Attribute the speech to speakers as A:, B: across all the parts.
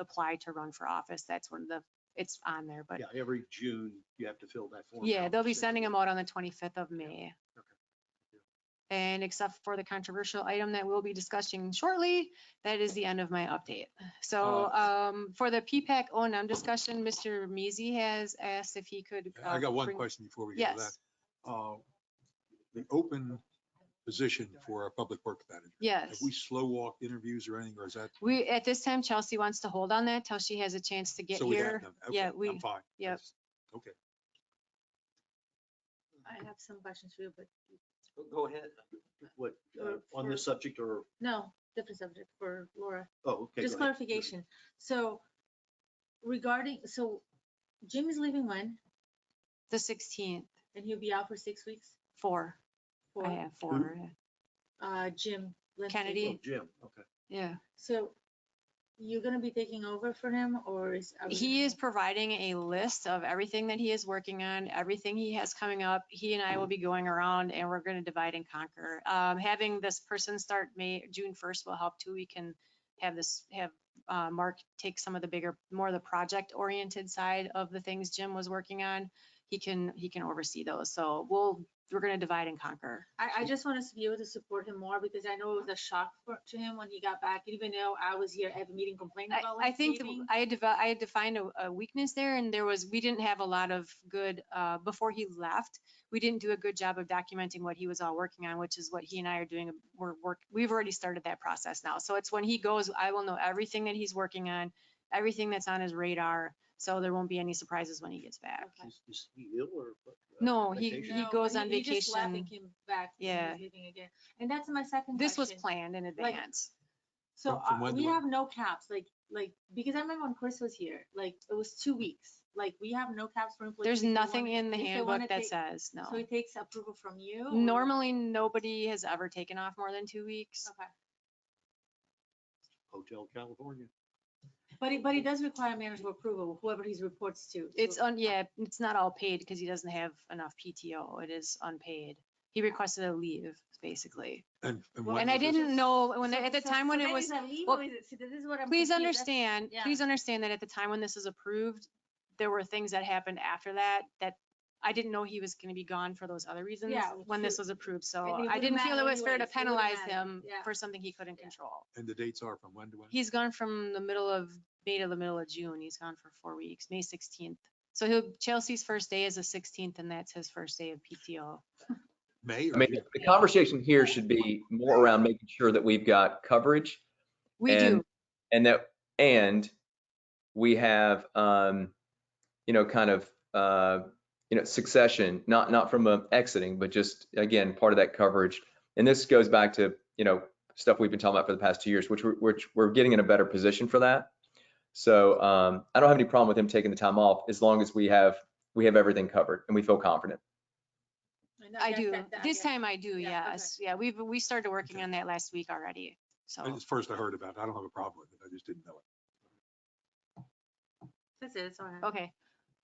A: apply to run for office, that's one of the, it's on there, but
B: Yeah, every June you have to fill that form.
A: yeah,
B: out,
A: they'll be
B: so-
A: sending them out on the twenty-fifth of May. And except for the controversial item that we'll be discussing shortly, that is the end of my update. So
C: Oh.
A: um, for the PPAC O and M discussion, Mr. Measy has asked if he could.
C: I
A: uh,
C: got one
A: bring-
C: question before we get to that.
A: Yes,
C: Uh, The open position for our public works manager. Have
A: yes.
C: we slow walked interviews or anything, or is that?
A: We, at this time, Chelsea wants to hold on that till she has a chance to get
C: so we have
A: here.
C: them. Okay,
A: yeah,
C: I'm
A: we-
C: fine.
A: yep.
C: That's- Okay.
D: I have some questions for you, but
E: Go ahead.
B: What, uh,
D: Or
B: on this subject or,
D: no, different subject for Laura.
B: oh, okay.
D: Just
B: go ahead.
D: clarification. So regarding, so Jim is leaving when?
A: The sixteenth,
D: And he'll be out for six weeks?
A: four, I
D: For,
A: have four, yeah.
D: uh, Jim. Lindsay.
A: Kennedy.
B: Oh, Jim, okay.
A: yeah.
D: So you're gonna be taking over for him or is? are we
A: He
D: gonna-
A: is providing a list of everything that he is working on, everything he has coming up. He and I will be going around and we're gonna divide and conquer. Um, having this person start May, June first will help too. We can have this, have, uh, Mark take some of the bigger, more of the project oriented side of the things Jim was working on. He can, he can oversee those. So we'll, we're gonna divide and conquer.
D: I, I just want us to be able to support him more because I know it was a shock for, to him when he got back, even though I was here every meeting complaining
A: I,
D: about.
A: I
D: Lindsay
A: think th-
D: leaving.
A: I had, devel- I had defined a, a weakness there and there was, we didn't have a lot of good, uh, before he left, we didn't do a good job of documenting what he was all working on, which is what he and I are doing. We're work, we've already started that process now. So it's when he goes, I will know everything that he's working on, everything that's on his radar. So there won't be any surprises when he gets back.
D: Okay.
B: Is- Is he ill or? what, uh,
A: No, Oh, he-
B: vacation?
A: he
D: No,
A: goes on
D: just left and
A: vacation.
D: Came back. and he
A: Yeah.
D: was leaving again. And that's my second.
A: This was
D: question.
A: planned in advance.
D: So
C: From- from
D: uh,
C: when to
D: we
C: when?
D: have no caps, like, like, because I remember when Chris was here, like, it was two weeks. Like, we have no caps for employees.
A: There's
D: if they
A: nothing
D: wanna-
A: in the
D: if they wanna
A: handbook that
D: take-
A: says, no.
D: So it takes approval from you? or-
A: Normally, nobody has ever taken off more than two weeks.
D: Okay.
B: Hotel California.
D: But it, but it does require manager approval, whoever he reports to. so-
A: It's on, yeah, it's not all paid because he doesn't have enough PTO. It is unpaid. He requested a leave, basically.
C: And, and
D: Well,
C: what
A: And I
C: was it?
A: didn't know when,
D: so-
A: at the
D: so-
A: time when
D: so
A: it
D: that
A: was,
D: is a leave
A: well,
D: or is it- see, this is what I'm
A: please
D: confused. That's-
A: understand,
D: yeah.
A: please understand that at the time when this was approved, there were things that happened after that, that I didn't know he was gonna be gone for those other reasons
D: Yeah, well,
A: when this
D: true.
A: was approved.
D: it
A: So I
D: wouldn't
A: didn't feel it
D: matter
A: was fair to
D: anyways, it wouldn't
A: penalize
D: matter,
A: him
D: yeah.
A: for something he couldn't
D: Yeah.
A: control.
C: And the dates are from when to when?
A: He's gone from the middle of May to the middle of June. He's gone for four weeks, May sixteenth. So he'll, Chelsea's first day is the sixteenth and that's his first day of PTO.
C: May
E: I
C: or
E: mean,
C: June?
E: the conversation here should be more around making sure that we've got coverage
A: We
E: And-
A: do.
E: and that, and we have, um, you know, kind of, uh, you know, succession, not, not from um, exiting, but just, again, part of that coverage. And this goes back to, you know, stuff we've been talking about for the past two years, which we're, which we're getting in a better position for that. So, um, I don't have any problem with him taking the time off as long as we have, we have everything covered and we feel confident.
D: know,
A: I
D: that-
A: do.
D: that- that-
A: This
D: yeah.
A: time I do,
D: Yeah, okay.
A: yes. Yeah, we've, we started working
C: Okay.
A: on that last week already. So
C: It's first I heard about it. I don't have a problem with it. I just didn't know it.
D: That's it, that's all I have.
A: Okay,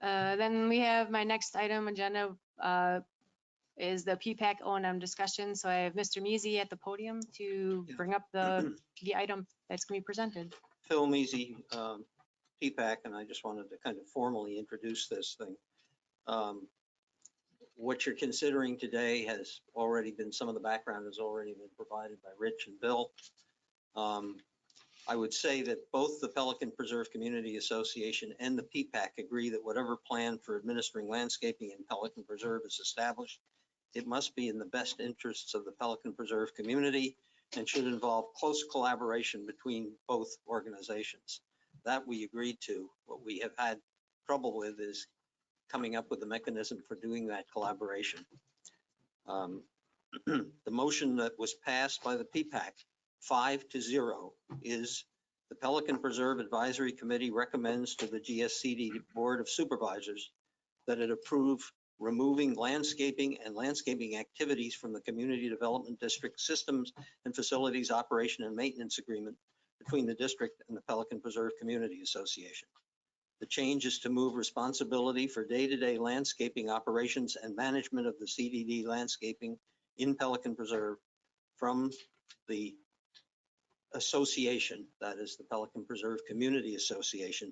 A: uh, then we have my next item agenda, uh, is the P-PAC O and M discussion. So I have Mr. Measy at the podium to
F: Yeah.
A: bring up the, the item that's gonna be presented.
F: Phil Measy, um, PPAC, and I just wanted to kind of formally introduce this thing. Um, What you're considering today has already been, some of the background has already been provided by Rich and Bill. Um, I would say that both the Pelican Preserve Community Association and the PPAC agree that whatever plan for administering landscaping in Pelican Preserve is established, it must be in the best interests of the Pelican Preserve community and should involve close collaboration between both organizations. That we agreed to. What we have had trouble with is coming up with a mechanism for doing that collaboration. Um, The motion that was passed by the P-PAC, five to zero, is the Pelican Preserve Advisory Committee recommends to the GSCD Board of Supervisors that it approve removing landscaping and landscaping activities from the Community Development District Systems and Facilities Operation and Maintenance Agreement between the district and the Pelican Preserve Community Association. The change is to move responsibility for day-to-day landscaping operations and management of the CDD landscaping in Pelican Preserve from the association, that is the Pelican Preserve Community Association,